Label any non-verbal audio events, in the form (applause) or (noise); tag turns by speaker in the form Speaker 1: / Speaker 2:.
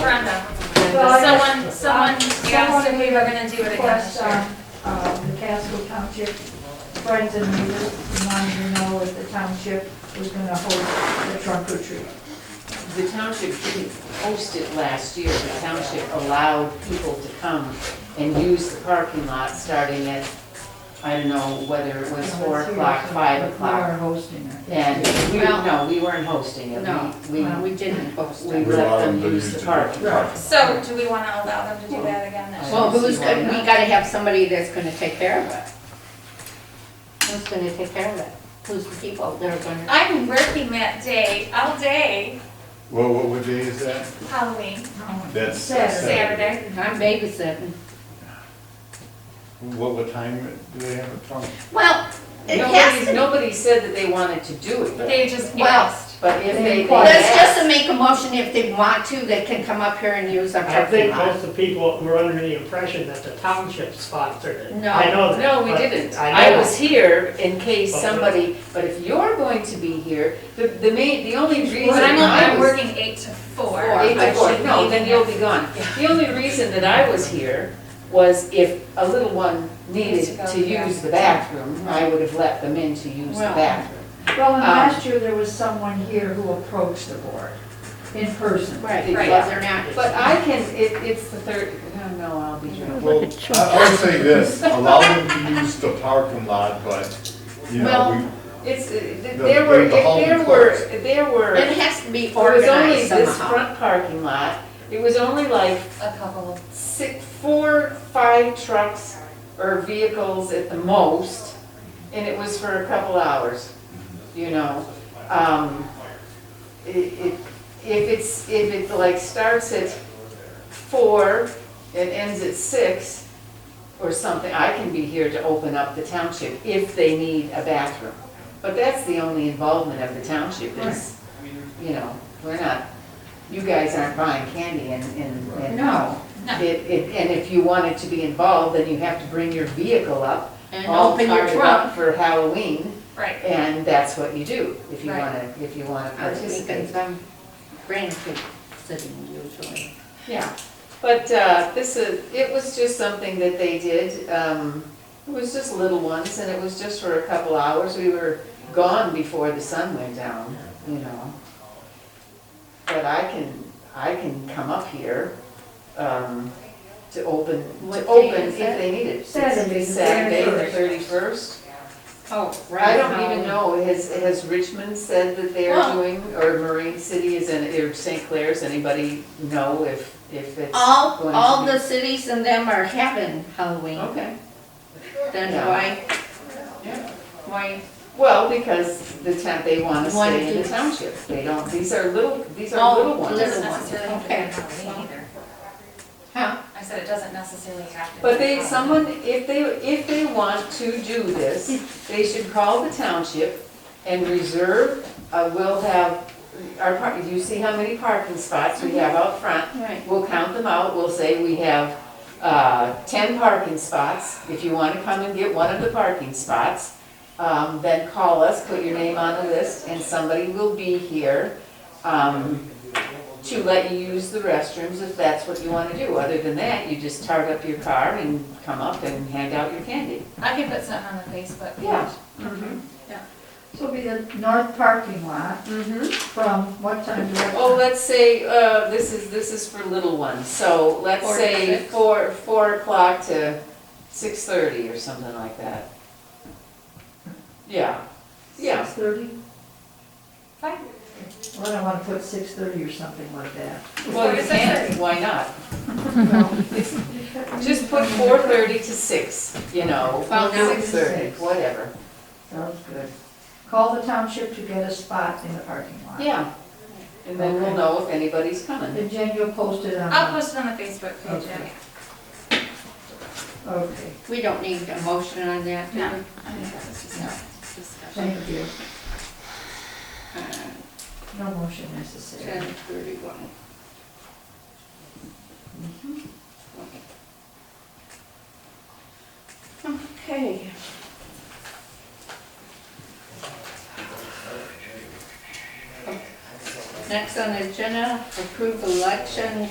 Speaker 1: referendum.
Speaker 2: Well, I-
Speaker 1: Someone, someone asked if we were gonna do it again this
Speaker 2: Request,
Speaker 1: year.
Speaker 2: um, uh, the Casco Township friends and neighbors wanted to know if the township was gonna hold the trunk or treat.
Speaker 3: The township didn't host it last year, the township allowed people to come and use the parking lot starting at, I don't know whether it was four o'clock, five
Speaker 2: We
Speaker 3: o'clock.
Speaker 2: are hosting it.
Speaker 3: And we,
Speaker 4: Well-
Speaker 3: no, we weren't hosting it,
Speaker 4: No, uh,
Speaker 3: we, we,
Speaker 4: Mm. we didn't post
Speaker 3: we
Speaker 4: it.
Speaker 3: let them use the park.
Speaker 5: uh,
Speaker 1: So do we wanna allow them to do that again this year?
Speaker 4: Well, who's, go- we gotta have somebody that's gonna take care of it. Who's gonna take care of it? Who's the people that are gonna?
Speaker 1: I'm working that day, all day,
Speaker 5: Well, what, what day is that?
Speaker 1: Halloween,
Speaker 5: That's
Speaker 1: Saturday.
Speaker 4: I'm babysitting.
Speaker 5: What, what time do they have it from?
Speaker 4: Well, it has
Speaker 3: Nobody,
Speaker 4: to,
Speaker 3: nobody said that they wanted to do it,
Speaker 1: They just
Speaker 4: Well,
Speaker 1: asked.
Speaker 3: but if they.
Speaker 2: Well,
Speaker 4: let's just make a motion if they want to, they can come up here and use our
Speaker 6: I
Speaker 4: parking
Speaker 6: think
Speaker 4: lot.
Speaker 6: most of the people were under the impression that the township sponsored it.
Speaker 4: No.
Speaker 6: I know that.
Speaker 3: No, we
Speaker 6: but
Speaker 3: didn't.
Speaker 6: I
Speaker 3: I
Speaker 6: know.
Speaker 3: was here in case
Speaker 6: Okay.
Speaker 3: somebody, but if you're going to be here, the, the main, the only reason
Speaker 1: But I'm,
Speaker 3: I
Speaker 1: I'm
Speaker 3: was.
Speaker 1: working eight to four.
Speaker 4: Four.
Speaker 3: Eight
Speaker 1: I
Speaker 3: to four,
Speaker 1: should
Speaker 3: no,
Speaker 1: be
Speaker 3: then you'll be gone. The only reason that I was here was if a little one
Speaker 1: Needs to
Speaker 3: needed
Speaker 1: go
Speaker 3: to
Speaker 1: to the
Speaker 3: use the bathroom, I would have let them in to use the
Speaker 4: Well.
Speaker 3: bathroom.
Speaker 2: Well, and last year, there was someone here who approached the board in person.
Speaker 4: Right,
Speaker 3: Right.
Speaker 4: because they're not. uh,
Speaker 3: But I can, it, it's the third, no, no, I'll be drunk.
Speaker 5: Well, I, I would say this, allow them to use the parking lot, but, you
Speaker 3: Well,
Speaker 5: know,
Speaker 3: It's, uh, th-
Speaker 5: The-
Speaker 3: there were,
Speaker 5: the home
Speaker 3: there were,
Speaker 5: closed.
Speaker 3: there were,
Speaker 4: It
Speaker 3: it
Speaker 4: has to be
Speaker 3: was only
Speaker 4: organized
Speaker 3: this
Speaker 4: somehow.
Speaker 3: front parking lot, it was only like
Speaker 1: A couple.
Speaker 3: six, four, five trucks or vehicles at the most, and it was for a couple hours, you know? Um, i- i- If it's, if it like starts at four and ends at six or something, I can be here to open up the township if they need a bathroom. But that's the only involvement of the township is, you know, we're not, you guys aren't buying candy and, and. and-
Speaker 4: No.
Speaker 1: No.
Speaker 3: It, it, and if you wanted to be involved, then you have to bring your vehicle up,
Speaker 4: And
Speaker 3: all
Speaker 4: open your
Speaker 3: fired up
Speaker 4: trunk.
Speaker 3: for Halloween,
Speaker 1: Right.
Speaker 3: and that's what you do, if you
Speaker 1: Right.
Speaker 3: wanna, if you wanna
Speaker 4: I was thinking
Speaker 3: participate.
Speaker 4: some grandkids sitting usually.
Speaker 3: Yeah, but, uh, this is, it was just something that they did, um, it was just little ones, and it was just for a couple hours, we were gone before the sun went down, you know. But I can, I can come up here, um, to open,
Speaker 4: What
Speaker 3: to
Speaker 4: day
Speaker 3: open if
Speaker 4: is it?
Speaker 3: they need it.
Speaker 2: Saturday, the
Speaker 3: Saturday, the
Speaker 2: 31st.
Speaker 3: thirty-first.
Speaker 4: Oh,
Speaker 3: I don't even know, has, has Richmond said that they're
Speaker 4: Well-
Speaker 3: doing, or Marine City is in, or St. Clair's, anybody know if, if it's
Speaker 4: All,
Speaker 3: going to
Speaker 4: all
Speaker 3: be-
Speaker 4: the cities and them are having Halloween,
Speaker 3: Okay,
Speaker 4: then
Speaker 3: Yeah.
Speaker 4: why,
Speaker 3: yeah.
Speaker 4: why,
Speaker 3: Well, because the town, they want to
Speaker 4: Wanna
Speaker 3: stay in
Speaker 4: do-
Speaker 3: the township. They don't, these are little, these
Speaker 4: Oh,
Speaker 3: are little ones.
Speaker 4: little-
Speaker 1: Doesn't necessarily have to be
Speaker 4: Okay.
Speaker 1: on Halloween either.
Speaker 4: huh?
Speaker 1: I said it doesn't necessarily have to.
Speaker 3: But
Speaker 1: be
Speaker 3: they,
Speaker 1: on
Speaker 3: someone, if they, if they want to do
Speaker 4: (laughs)
Speaker 3: this, they should call the township and reserve, uh, we'll have, our, par- you see how many parking spots we have out front?
Speaker 4: Right.
Speaker 3: We'll count them out, we'll say we have uh, 10 parking spots. If you want to come and get one of the parking spots, um, then call us, put your name on the list, and somebody will be here um, to let you use the restrooms if that's what you want to do. Other than that, you just tart up your car and come up and hand out your candy.
Speaker 1: I can put something on the Facebook page.
Speaker 3: Yeah.
Speaker 2: This will be the north parking lot
Speaker 3: Mm-hmm.
Speaker 2: from what time to what time?
Speaker 3: Oh, let's say, uh, this is, this is for little ones, so let's
Speaker 4: Four to
Speaker 3: say
Speaker 4: six.
Speaker 3: four, four o'clock to 6:30 or something like that. Yeah, yeah.
Speaker 2: Six thirty?
Speaker 1: Fine.
Speaker 2: Well, I don't wanna put six thirty or something like that.
Speaker 3: Well,
Speaker 1: Four to
Speaker 3: you
Speaker 1: six
Speaker 3: can't, why not?
Speaker 2: Well,
Speaker 3: It's- Just put 4:30 to 6, you know,
Speaker 4: Well, now
Speaker 2: it's
Speaker 3: 6:30,
Speaker 2: six.
Speaker 3: whatever.
Speaker 2: Sounds good. Call the township to get a spot in the parking lot.
Speaker 3: Yeah. And then we'll
Speaker 2: Okay.
Speaker 3: know if anybody's coming.
Speaker 2: And Jen, you'll post it on.
Speaker 1: I'll post it on the Facebook page,
Speaker 2: Okay.
Speaker 1: yeah.
Speaker 2: Okay,
Speaker 4: We don't need a motion on that, do we?
Speaker 1: No. I think that's just-
Speaker 4: Discussion.
Speaker 2: thank you.
Speaker 4: Uh,
Speaker 2: No motion necessary.
Speaker 4: 10:31. Okay. Next on the agenda, approve election